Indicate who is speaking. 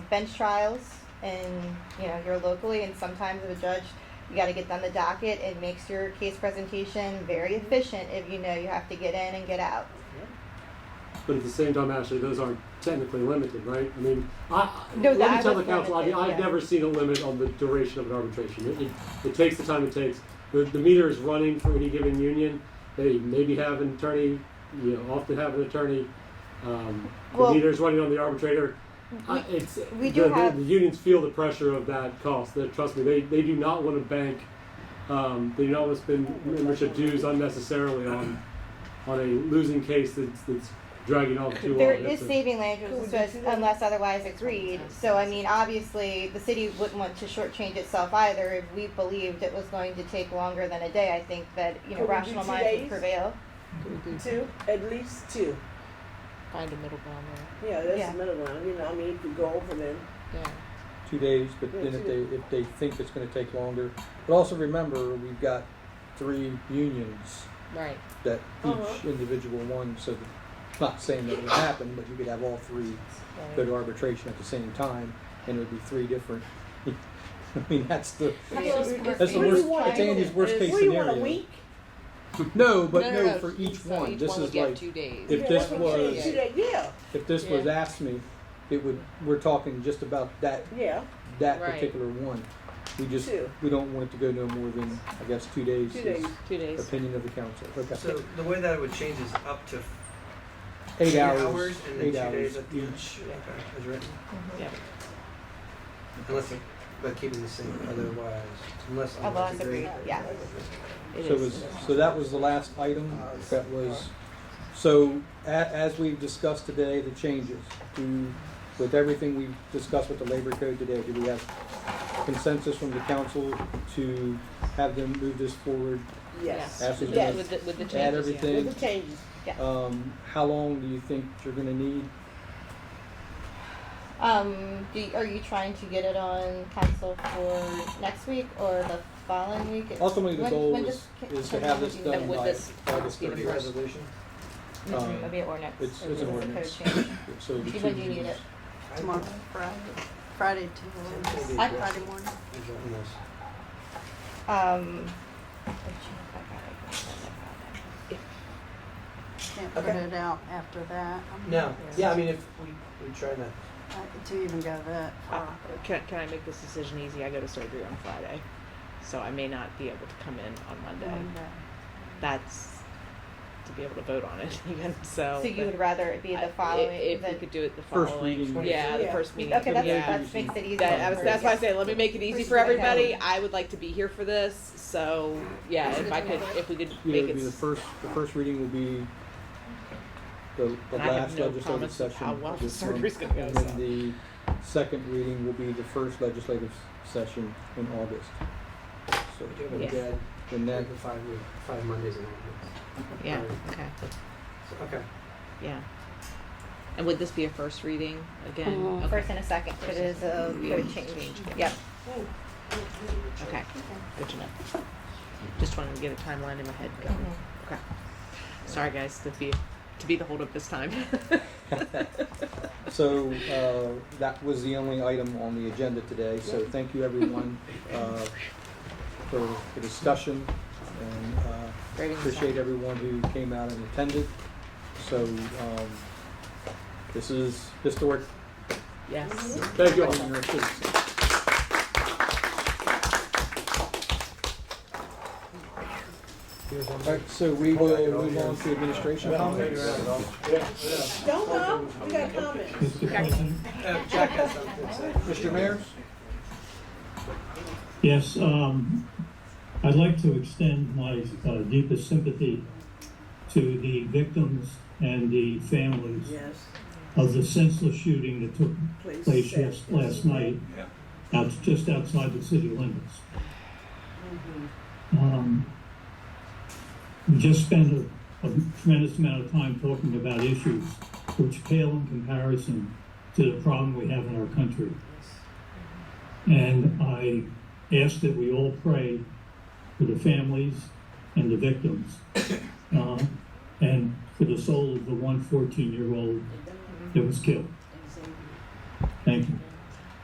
Speaker 1: bench trials and, you know, you're locally and sometimes as a judge, you gotta get done the docket. It makes your case presentation very
Speaker 2: Mm-hmm.
Speaker 1: efficient if you know you have to get in and get out.
Speaker 3: But at the same time, Ashley, those aren't technically limited, right? I mean, I,
Speaker 1: No,
Speaker 3: let me
Speaker 1: that
Speaker 3: tell the
Speaker 1: was
Speaker 3: council, I mean,
Speaker 1: limited,
Speaker 3: I've
Speaker 1: yeah.
Speaker 3: never seen a limit on the duration of an arbitration. It, it, it takes the time it takes. The, the meter is running for any given union. They maybe have an attorney, you know, often have an attorney. Um,
Speaker 1: Well-
Speaker 3: the meter is running on the arbitrator. I, it's,
Speaker 1: we
Speaker 3: the,
Speaker 1: do
Speaker 3: the-
Speaker 1: have-
Speaker 3: the unions feel the pressure of that cost. That trust me, they, they do not want to bank. Um, they do not want to spend membership dues unnecessarily on on a losing case that's, that's dragging on too
Speaker 1: There
Speaker 3: long.
Speaker 1: is
Speaker 3: That's a-
Speaker 1: saving language
Speaker 2: Cool,
Speaker 1: it's
Speaker 2: did you
Speaker 1: just
Speaker 2: see that?
Speaker 1: unless otherwise agreed. So I mean, obviously, the city wouldn't want to shortchange itself either if we believed it was going to take longer than a day. I think that, you know,
Speaker 2: Could we do
Speaker 1: rational
Speaker 2: two
Speaker 1: minds would
Speaker 2: days?
Speaker 1: prevail.
Speaker 2: Two, at least two.
Speaker 4: Find a middle ground
Speaker 2: Yeah, that's
Speaker 1: Yeah.
Speaker 2: the middle one. You know, I mean, you could go over them.
Speaker 4: there. Yeah.
Speaker 5: two days, but
Speaker 2: Yeah,
Speaker 5: then
Speaker 2: two
Speaker 5: if they, if they think it's gonna take longer. But also remember, we've got three unions
Speaker 4: Right.
Speaker 5: that each
Speaker 2: Uh-huh.
Speaker 5: individual one, so that- not saying that would happen, but you could have all three go to arbitration at the same time, and it would be three different. I mean, that's the, that's the
Speaker 2: What do you
Speaker 5: worst,
Speaker 2: want?
Speaker 5: it's Andy's worst case
Speaker 2: What do you want, a
Speaker 5: scenario.
Speaker 2: week?
Speaker 5: No, but
Speaker 4: no,
Speaker 5: no, for each
Speaker 4: so
Speaker 5: one,
Speaker 4: each
Speaker 5: this
Speaker 4: one
Speaker 5: is
Speaker 4: would get
Speaker 5: like,
Speaker 4: two days.
Speaker 5: if
Speaker 2: Yeah,
Speaker 5: this
Speaker 2: that's what I'm saying.
Speaker 5: was-
Speaker 2: Two days, Yeah,
Speaker 5: if this was
Speaker 4: Yeah.
Speaker 5: asked me, it would, we're talking just about that
Speaker 2: yeah,
Speaker 5: that
Speaker 4: Right.
Speaker 5: particular one. We just,
Speaker 2: Two.
Speaker 5: we don't want it to go no more than, I guess, two days.
Speaker 2: two
Speaker 5: is
Speaker 2: days.
Speaker 4: two days.
Speaker 5: Opinion of the council.
Speaker 6: So
Speaker 5: Okay.
Speaker 6: the way that it would change is up to
Speaker 5: Eight
Speaker 6: two
Speaker 5: hours.
Speaker 6: and then
Speaker 5: eight
Speaker 6: two
Speaker 5: hours
Speaker 6: days at the
Speaker 5: each.
Speaker 6: Okay, as written.
Speaker 4: Yeah.
Speaker 6: Unless it, by keeping the same otherwise, unless
Speaker 1: Otherwise agreed, yeah.
Speaker 4: It
Speaker 5: So
Speaker 4: is.
Speaker 5: was, so that was the last item that was, so a- as we've discussed today, the changes. Do, with everything we've discussed with the labor code today, do we have consensus from the council to have them move this forward?
Speaker 2: Yes.
Speaker 5: Ashley,
Speaker 4: With,
Speaker 5: Yes.
Speaker 4: with the, with the changes.
Speaker 5: Add
Speaker 4: Yeah.
Speaker 5: everything?
Speaker 2: With the changes.
Speaker 5: Um, how long do you think you're gonna need?
Speaker 1: Um, do you- are you trying to get it on council for next week or the following week? It's-
Speaker 5: Ultimately, the
Speaker 1: when-
Speaker 5: goal
Speaker 1: when
Speaker 5: is,
Speaker 1: does-
Speaker 5: is to
Speaker 1: can
Speaker 5: have
Speaker 1: we
Speaker 5: this
Speaker 1: do
Speaker 5: done
Speaker 4: would
Speaker 5: by
Speaker 4: this
Speaker 5: August
Speaker 4: be the
Speaker 6: The
Speaker 5: thirtieth.
Speaker 4: first?
Speaker 6: resolution.
Speaker 4: Mm-hmm.
Speaker 1: that? Mhm,
Speaker 5: um,
Speaker 1: It'll be an ordinance.
Speaker 5: it's- it's an
Speaker 1: a code
Speaker 5: ordinance.
Speaker 1: change.
Speaker 5: So the
Speaker 1: When
Speaker 5: two
Speaker 1: do you need
Speaker 5: meetings.
Speaker 1: it?
Speaker 7: Tomorrow, Friday, Friday tomorrow,
Speaker 1: I-
Speaker 7: Friday morning.
Speaker 6: Is that in this?
Speaker 1: Um.
Speaker 7: Can't
Speaker 6: Okay.
Speaker 7: put it out after that. I'm-
Speaker 6: No, yeah, I mean, if we, we try to,
Speaker 7: I- To even go that
Speaker 4: Uh,
Speaker 6: Ah.
Speaker 7: far.
Speaker 4: Can, can I make this decision easy? I go to surgery on Friday, so I may not be able to come in on Monday.
Speaker 7: Monday.
Speaker 4: That's to be able to vote on it even. So.
Speaker 1: So you
Speaker 4: but
Speaker 1: would rather it be
Speaker 4: I-
Speaker 1: the following?
Speaker 4: If, if
Speaker 1: than-
Speaker 4: we could do it the
Speaker 5: First
Speaker 4: following.
Speaker 5: reading.
Speaker 4: yeah, the
Speaker 2: Yeah.
Speaker 4: first meeting.
Speaker 1: Okay, that's,
Speaker 4: yeah.
Speaker 1: that makes it easy.
Speaker 4: That, I was,
Speaker 1: for-
Speaker 4: that's why I
Speaker 1: yeah.
Speaker 4: say let me make it easy for
Speaker 1: Okay.
Speaker 4: everybody. I would like to be here for this, so yeah, if I could, if we could
Speaker 5: Either
Speaker 4: make
Speaker 5: it'd
Speaker 4: it.
Speaker 5: be the
Speaker 4: s-
Speaker 5: first, the first reading will be the, the
Speaker 4: And I have
Speaker 5: last
Speaker 4: no
Speaker 5: legislative
Speaker 4: promise of
Speaker 5: session
Speaker 4: how well
Speaker 5: of this
Speaker 4: the
Speaker 5: month.
Speaker 4: surgery's gonna go,
Speaker 5: And then
Speaker 4: so.
Speaker 5: the second reading will be the first legislative session in August. So
Speaker 6: we do have a
Speaker 4: Yeah.
Speaker 6: dead,
Speaker 5: then
Speaker 6: like
Speaker 5: that,
Speaker 6: the five, week- five Mondays in a
Speaker 4: Yeah.
Speaker 6: Alright.
Speaker 4: Okay.
Speaker 6: So Okay.
Speaker 4: Yeah. And would this be a first reading again?
Speaker 7: Mhm.
Speaker 4: Okay.
Speaker 1: First and a second, but it is a code change. Yep.
Speaker 4: Okay. Good to know. Just wanted to get a timeline in my head going.
Speaker 1: Mm-hmm.
Speaker 4: Okay. Sorry, guys, to be to be the holdup this time.
Speaker 5: so, uh, that was the only item on the agenda today, so thank you everyone, uh, for the discussion and, uh,
Speaker 4: Right in the
Speaker 5: Appreciate
Speaker 4: sun.
Speaker 5: everyone who came out and attended. So, um, this is historic.
Speaker 4: Yes.
Speaker 3: Thank you all.
Speaker 6: Here's one.
Speaker 5: Alright, so we will move on to administration comments.
Speaker 2: Don't go, we got comments.
Speaker 6: Uh, Jack has something to say.
Speaker 5: Mr. Mayor?
Speaker 8: Yes, um, I'd like to extend my uh, deepest sympathy to the victims and the families
Speaker 2: Yes,
Speaker 8: of the senseless shooting that took
Speaker 2: please.
Speaker 8: place
Speaker 2: stay.
Speaker 8: just last night, out, just outside the city limits. Um, we just spent a, a tremendous amount of time talking about issues which pale in comparison to the problem we have in our country. And I ask that we all pray for the families and the victims, uh, and for the soul of the one 14 year old that was killed. Thank you.